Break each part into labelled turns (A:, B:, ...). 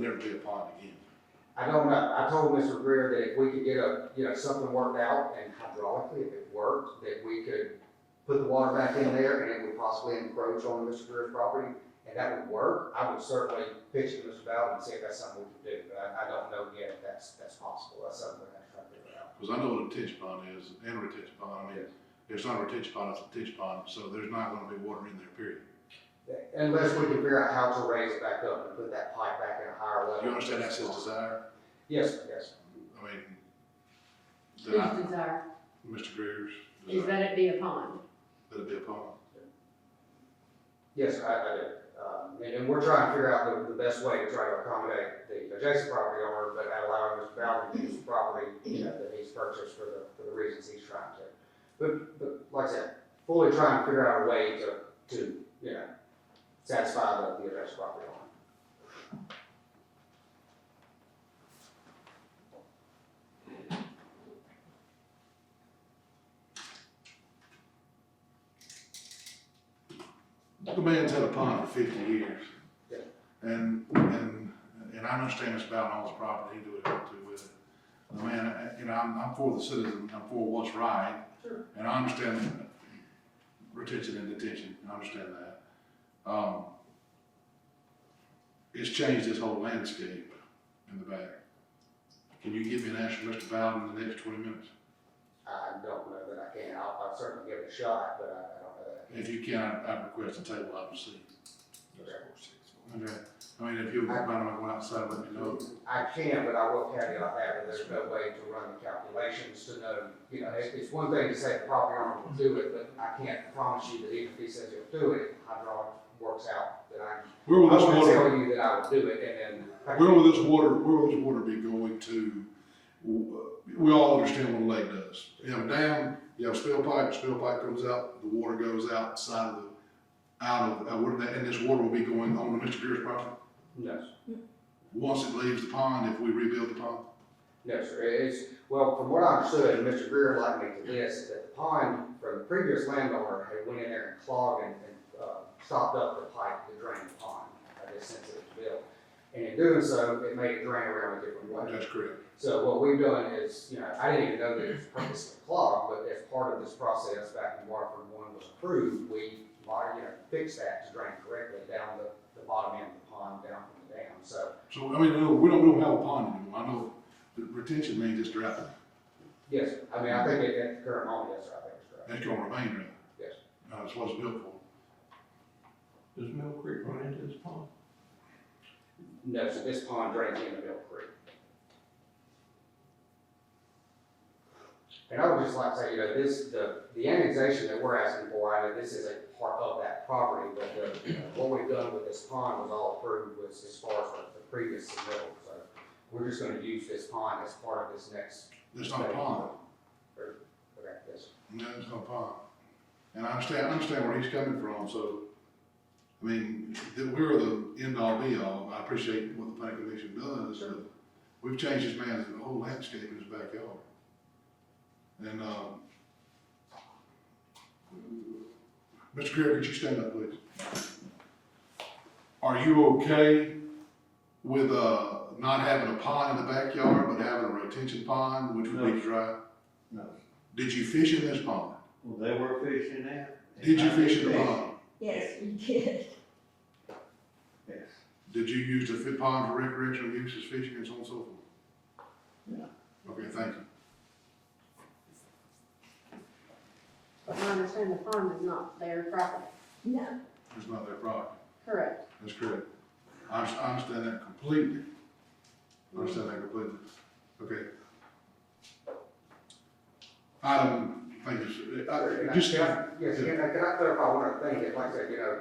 A: it'll be a part again.
B: I don't know, I told Mr. Greer that if we could get a, you know, something worked out and hydraulically, if it worked, that we could put the water back in there and it would possibly encroach on Mr. Greer's property, and that would work, I would certainly pitch it to Mr. Bowden and see if that's something we could do, but I, I don't know yet if that's, that's possible, that's something we're gonna try to figure out.
A: Because I know what a ditch pond is, and a retention pond, I mean, there's not a retention pond, it's a ditch pond, so there's not gonna be water in there, period.
B: Unless we can figure out how to raise it back up and put that pipe back in a higher level.
A: You understand that's his desire?
B: Yes, sir, yes. sir.
A: I mean,
C: His
A: then I,
C: desire
A: Mr. Greer's
C: is
A: desire,
C: that it be a pond.
A: that it be a pond.
B: Yes, I, I do. Um, and, and we're trying to figure out the, the best way to try to accommodate the adjacent property owner, but allowing Mr. Bowden to use the property, you know, that he's purchased for the, for the reasons he's trying to. But, but like I said, fully trying to figure out a way to, to, you know, satisfy the, the adjacent property owner.
A: The man's had a pond for fifty years.
B: Yeah.
A: And, and, and I understand it's about all his property, he do what he want to with it. The man, uh, you know, I'm, I'm for the citizen, I'm for what's right.
B: Sure.
A: And I understand retention and detention, I understand that. Um, it's changed this whole landscape in the back. Can you give me an answer, Mr. Bowden, in the next twenty minutes?
B: I don't know that I can. I'll, I'll certainly give it a shot, but I, I don't know that I
A: If you can, I'd I'd request a table up and see. Okay, I mean, if you, I don't go outside, let me know.
B: I can, but I will caveat that, that there's no way to run the calculations to know, you know, it's, it's one thing to say the property owner will do it, but I can't promise you that even if he says he'll do it, hydraulic works out, that I,
A: Where
B: I
A: will this
B: won't
A: water,
B: tell you that I will do it, and then.
A: where will this water, where will this water be going to? We all understand what a lake does. You have a dam, you have a spill pipe, spill pipe comes out, the water goes outside of the, out of, uh, where that, and this water will be going on to Mr. Greer's property.
B: No,
A: Once it leaves the pond, if we rebuild the pond,
B: No, sir, It- it's, well, from what I understood, and Mr. Greer liked me to this, is that the pond from the previous landowner had went in there and clogged and, and, uh, stopped up the pipe to drain the pond, I guess since it was built. And in doing so, it made it drain around a different way.
A: that's correct.
B: So what we've done is, you know, I didn't even know that it was purposely clogged, but as part of this process back in Waterford one was approved, we, mod- you know, fixed that to drain correctly down the, the bottom end of the pond, down from the dam, so
A: So, I mean, no, we don't, we don't have a pond anymore. I know that retention means it's dry.
B: Yes, sir. I mean, I think at, at the current moment, yes, sir, I think it's correct.
A: That's gonna remain dry.
B: Yes.
A: Uh, it's what it's built for.
D: Does Mill Creek run into this pond?
B: No, so this pond drains into Mill Creek. And I would just like to say, you know, this, the, the annexation that we're asking for, I know this is a part of that property, but the, you know, what we've done with this pond was all approved was as far as the the previous submittal, so we're just gonna use this pond as part of this next.
A: It's not a pond.
B: Okay, yes, sir.
A: No, it's not a pond. And I understand, I understand where he's coming from, so, I mean, the, we're the end all be all. I appreciate what the planning commission does, but we've changed this man's whole landscape in his backyard. And, um, Mr. Greer, could you stand up, please? Are you okay with, uh, not having a pond in the backyard, but having a retention pond, which would be dry?
D: No.
A: Did you fish in this pond?
D: Well, they were fishing there.
A: Did you fish in the pond?
E: Yes, we did.
D: Yes.
A: Did you use the fit pond for recreational use as fishing and so on and so forth?
D: No.
A: Okay, thank you.
C: I understand the pond is not their property.
E: No,
A: It's not their problem.
C: Correct.
A: That's correct. I, under- I understand that completely. I understand that completely. Okay. Item, thank you. sir.
B: Can
A: Uh,
B: I-
A: Just,
B: can I- Yes, can I, can I clarify one other thing, that like I said, you know,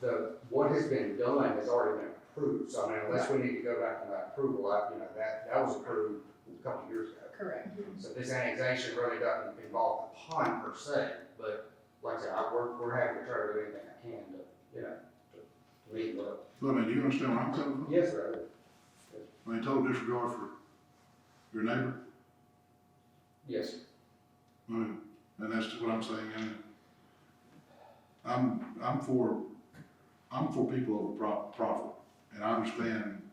B: the, what has been done has already been approved, so I mean, unless we need to go back to that approval, I, you know, that, that was approved a couple of years ago.
C: Correct.
B: So this annexation really doesn't involve the pond per se, but like I said, I, we're, we're having to try to do anything I can to, you know, to meet the.
A: look, man, do you understand where I'm coming from?
B: Yes, sir.
A: I mean, total disregard for your neighbor.
B: Yes, sir.
A: I mean, And that's what I'm saying. And I'm, I'm for, I'm for people over pro- profit. And I understand